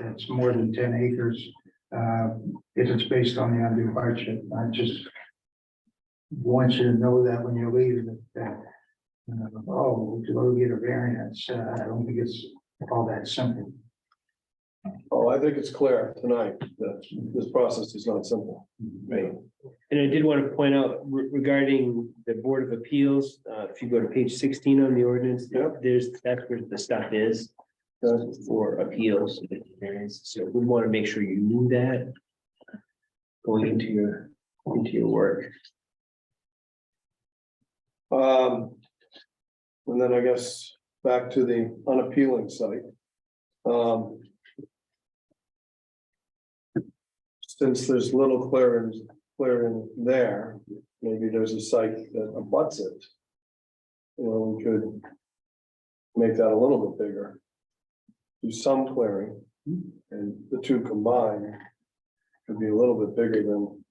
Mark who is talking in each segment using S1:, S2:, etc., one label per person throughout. S1: and it's more than ten acres, uh, if it's based on the undue hardship, I just want you to know that when you leave, that, that, uh, oh, to go get a variance, uh, I don't think it's all that simple.
S2: Oh, I think it's clear tonight that this process is not simple. Right.
S3: And I did want to point out re- regarding the Board of Appeals, uh, if you go to page sixteen on the ordinance,
S2: Yep.
S3: there's, that's where the stuff is. uh, For appeals, so we want to make sure you knew that. Going into your, into your work.
S2: Um. And then I guess back to the unappealing site. Um. Since there's little clearance, clearing there, maybe there's a site that abuts it. You know, we could. Make that a little bit bigger. Do some clearing and the two combined. Could be a little bit bigger than.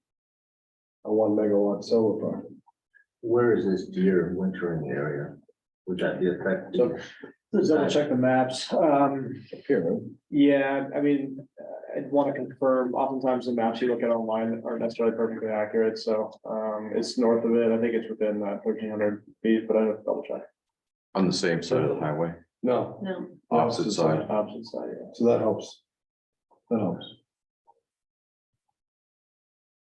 S2: A one megawatt solar farm.
S4: Where is this deer wintering area? Would that be
S2: So-
S4: affected?
S5: Let's double check the maps. Um,
S2: Here.
S5: yeah, I mean, uh, I'd want to confirm, oftentimes the maps you look at online aren't necessarily perfectly accurate, so, um, it's north of it. I think it's within that thirteen hundred feet, but I have to double check.
S6: On the same side of the highway,
S2: No,
S7: No,
S6: opposite side.
S5: Opposite side, yeah.
S2: so that helps. That helps.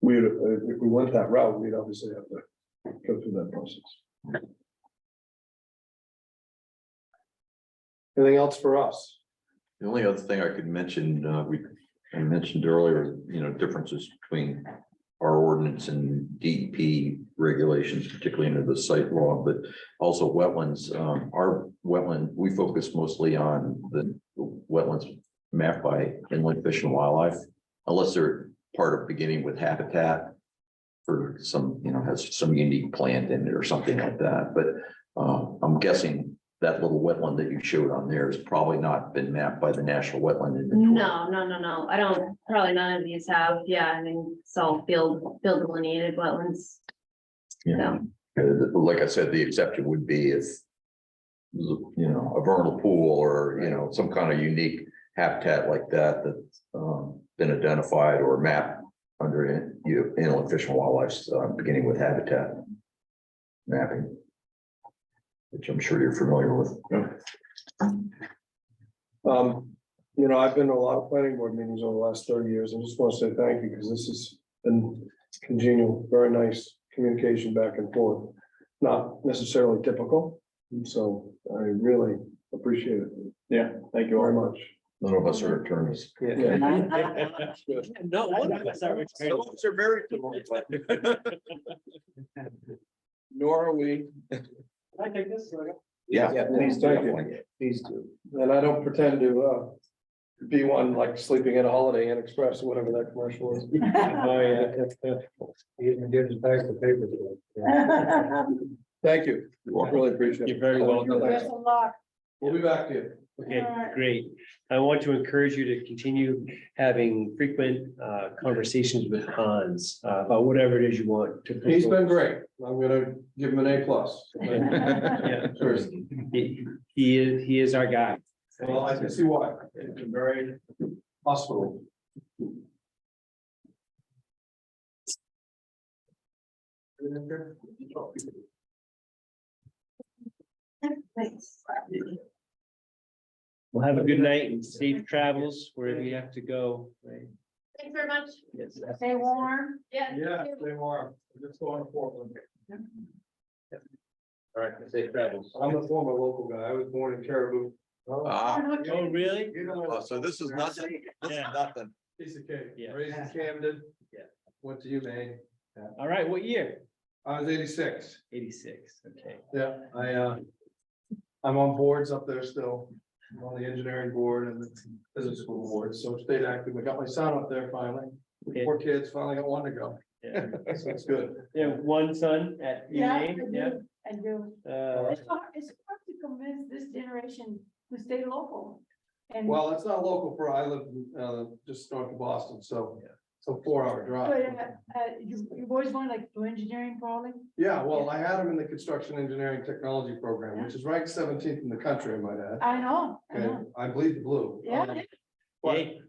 S2: We, uh, if we went that route, we'd obviously have to go through that process. Anything else for us?
S6: The only other thing I could mention, uh, we, I mentioned earlier, you know, differences between our ordinance and DEP regulations, particularly under the site law, but also wetlands. Um, our wetland, we focus mostly on the wetlands mapped by inland fish and wildlife, unless they're part of beginning with habitat for some, you know, has some unique plant in it or something like that. But, uh, I'm guessing that little wetland that you showed on there has probably not been mapped by the National Wetland Inventory.
S7: no, no, no, no, I don't, probably none of these have, yeah, I mean, it's all field, field delineated wetlands.
S6: Yeah, Uh, like I said, the exception would be if. You know, a vernal pool or, you know, some kind of unique habitat like that that's um been identified or mapped. Under in- you know, inland fish and wildlife, uh, beginning with habitat. Mapping. Which I'm sure you're familiar with.
S2: Um, you know, I've been to a lot of planning board meetings over the last thirty years. I just want to say thank you because this has been congenial, very nice communication back and forth. Not necessarily typical, so I really appreciate it
S5: Yeah, thank you all.
S2: very much.
S6: None of us are attorneys.
S3: No, one of us are.
S2: are very typical. Nor are we,
S5: I take this?
S6: Yeah.
S2: Yeah, please, thank you.
S6: definitely.
S3: Please do.
S2: and I don't pretend to uh be one like sleeping at a Holiday Inn Express or whatever that commercial is.
S5: Oh, yeah.
S1: You even give us back the paper today.
S2: Thank you. Really appreciate it.
S3: You're very welcome.
S2: Thanks. We'll be back to you.
S3: Okay, great. I want to encourage you to continue having frequent uh, conversations with Hans uh, about whatever it is you want to.
S2: He's been great. I'm gonna give him an A plus.
S3: Yeah,
S2: Seriously.
S3: he, he is, he is our guy.
S2: Well, I can see why. It's a very hospitable.
S7: Thanks.
S3: Well, have a good night and safe travels wherever you have to go. Oh,
S7: Thanks very much.
S3: Yes.
S7: Stay warm. Yeah.
S2: Yeah, they are. Just going to Portland.
S4: All right, safe travels.
S2: I'm a former local guy. I was born in Caribou.
S6: Ah,
S3: Oh, really?
S2: You know,
S6: oh, so this is nothing, this is
S3: Yeah.
S6: nothing.
S2: piece of cake.
S3: Yeah.
S2: Raised in Camden.
S3: Yeah.
S2: Went to UMaine.
S3: All right, what year?
S2: I was eighty-six.
S3: Eighty-six, okay.
S2: Yeah, I, uh, I'm on boards up there still, I'm on the engineering board and the business school board, so stayed active. I got my son up there finally.
S3: Okay.
S2: Four kids, finally got one to go.
S3: Yeah.
S2: So it's good.
S3: You have one son at UMaine?
S8: Yeah, I
S3: yeah?
S8: do, I do.
S3: Uh,
S8: It's hard, it's hard to convince this generation to stay local. And,
S2: Well, it's not local for, I live, uh, just north of Boston, so it's a four-hour
S8: but,
S2: drive.
S8: uh, uh, you, you always want like to engineering probably,
S2: Yeah, well, I had him in the construction engineering technology program, which is ranked seventeenth in the country, I might add.
S8: I know, I
S2: Okay,
S8: know,
S2: I bleed the blue.
S8: Uh-huh. yeah.
S2: Um,
S8: yeah.
S2: But
S3: hey,